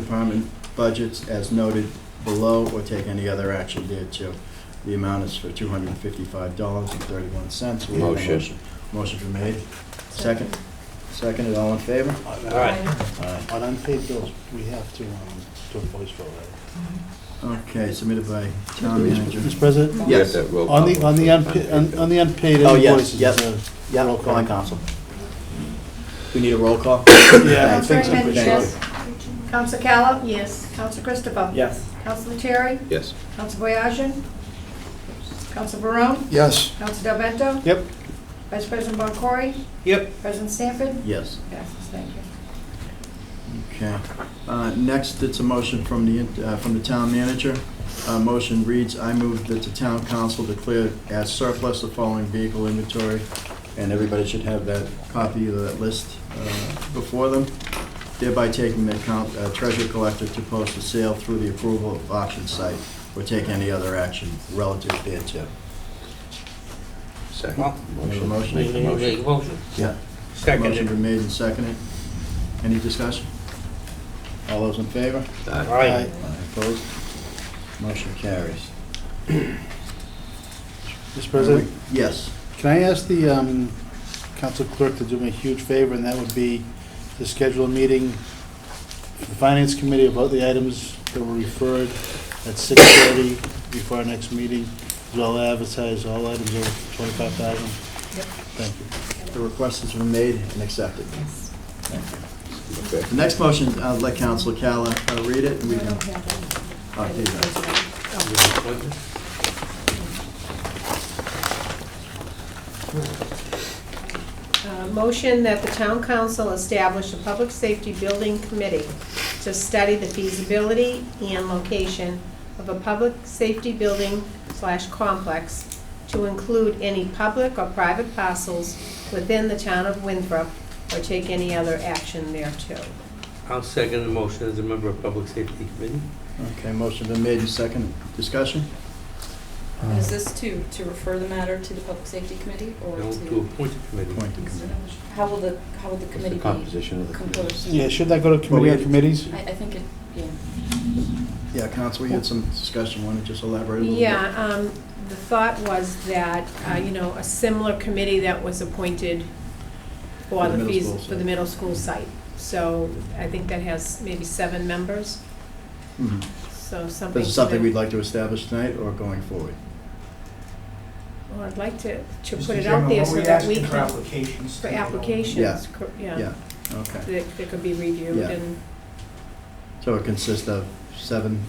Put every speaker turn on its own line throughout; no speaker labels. Department budgets as noted below or take any other action thereto. The amount is for $255.31. We have a
Motion.
Motion's been made. Second. Seconded, all in favor?
All right.
Aye.
On unpaid bills, we have to, um, do a voice vote. right?
Okay, submitted by town manager.
Mr. President,
We have
Yes.
that roll
on the,
call
on the
vote for
unpaid, on- on the unpaid
Oh, yes,
invoices,
yes.
uh,
Yeah, Oh,
roll call.
calling council. We need a roll call?
yeah, I think
Councilor
so.
Councilman
Henry,
Thank you.
yes. Council Callow? Yes. Council Christopher?
Yes.
Council Terry?
Yes.
Council Boyajin? Council Barone?
Yes.
Council Del Vento?
Yep.
Vice President Boncory?
Yep.
President Sanford?
Yes,
Passes, thank you.
okay. Uh, Next, it's a motion from the, uh, from the town manager. Uh, Motion reads, I move that the town council declare as surplus the following vehicle inventory, and everybody should have that copy of that list uh, before them, thereby taking the account, uh, treasurer collector to post a sale through the approval of auction site, or take any other action relative thereto.
Second.
Well,
Make a
Motion.
motion?
make make a motion.
Yeah. Motion
Second.
been made and seconded. Any discussion? All those in favor?
Aye.
Aye.
Opposed? Motion carries.
Mr. President,
Yes.
can I ask the, um, council clerk to do me a huge favor, and that would be to schedule a meeting for the finance committee about the items that were referred at six thirty before our next meeting, as well advertise all items over twenty-five thousand?
Yep.
Thank you.
The request has been made and accepted. Thank you.
Okay.
The next motion, I'll let Council Cala uh, read it, and we
We
can...
don't have
oh,
that.
here you go.
Uh, Motion that the town council establish a public safety building committee to study the feasibility and location of a public safety building slash complex to include any public or private parcels within the town of Winthrop or take any other action thereto.
I'll second the motion as a member of Public Safety Committee.
Okay, motion been made and seconded. Discussion?
Is this to, to refer the matter to the Public Safety Committee or
No, to
to?
appoint a committee.
Point to committee.
How will the, how will
What's
the
the
committee be
composition of the committee?
composed?
Yeah, should that go to
Well, we
committee on
had-
committees?
I, I think it, yeah.
Yeah, Council, you had some discussion, want to just elaborate a little bit?
Yeah, um, the thought was that, uh, you know, a similar committee that was appointed for
For the
the
middle
fees,
school
for the
site.
middle school site. So I think that has maybe seven members,
Mhm.
so something.
This is something we'd like to establish tonight or going forward?
Well, I'd like to, to
Mr.
put it
Chairman,
out there
what
so
we
that we
asking for
can,
applications.
for
to be open?
applications, cor- yeah,
Yeah, okay.
that, that could be reviewed
Yeah.
and.
So it consists of seven,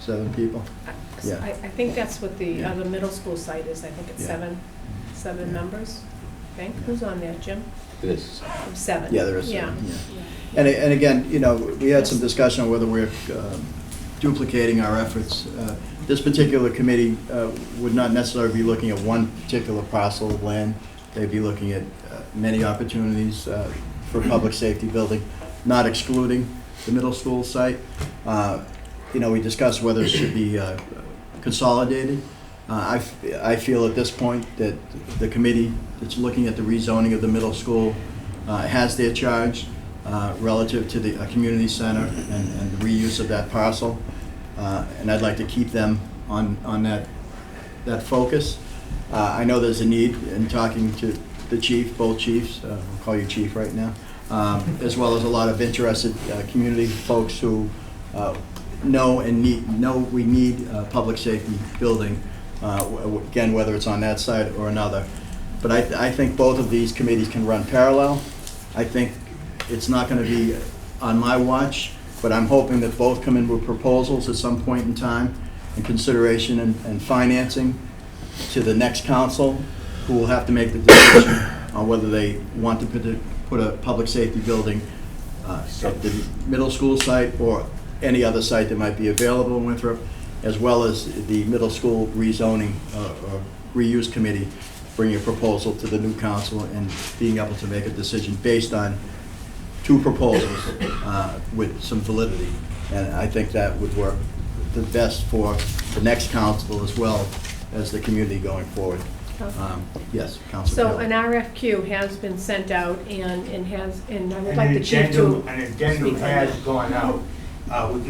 seven people?
I-
Yeah.
I, I think that's what the
Yeah.
other middle school site is, I think it's
Yeah.
seven,
Yeah.
seven members, I think.
Yeah.
Who's on there, Jim?
This.
Seven.
Yeah, there is
Uh, Yeah.
seven, yeah. And, and again, you know, we had some discussion on whether we're um, duplicating our efforts. Uh, This particular committee uh, would not necessarily be looking at one particular parcel of land. They'd be looking at uh, many opportunities uh, for public safety building, not excluding the middle school site. Uh, You know, we discussed whether it should be uh, consolidated. Uh, I, f- I feel at this point that the committee that's looking at the rezoning of the middle school uh, has their charge uh, relative to the uh, community center and and the reuse of that parcel. Uh, And I'd like to keep them on, on that, that focus. Uh, I know there's a need in talking to the chief, both chiefs, uh, I'll call you chief right now, um, as well as a lot of interested uh, community folks who uh, know and need, know we need a public safety building, uh, w- w- again, whether it's on that side or another. But I, I think both of these committees can run parallel. I think it's not going to be on my watch, but I'm hoping that both come in with proposals at some point in time and consideration and, and financing to the next council, who will have to make the decision on whether they want to put a, put a public safety building uh, at the middle school site or any other site that might be available in Winthrop, as well as the middle school rezoning uh, or reuse committee bringing a proposal to the new council and being able to make a decision based on two proposals uh, with some validity. And I think that would work the best for the next council as well as the community going forward. Um, Yes, Council
So
Cahill.
an RFQ has been sent out and, and has, and I would
An
like the chief to.
addendum, an addendum
speak on that.
has gone out.
uh, we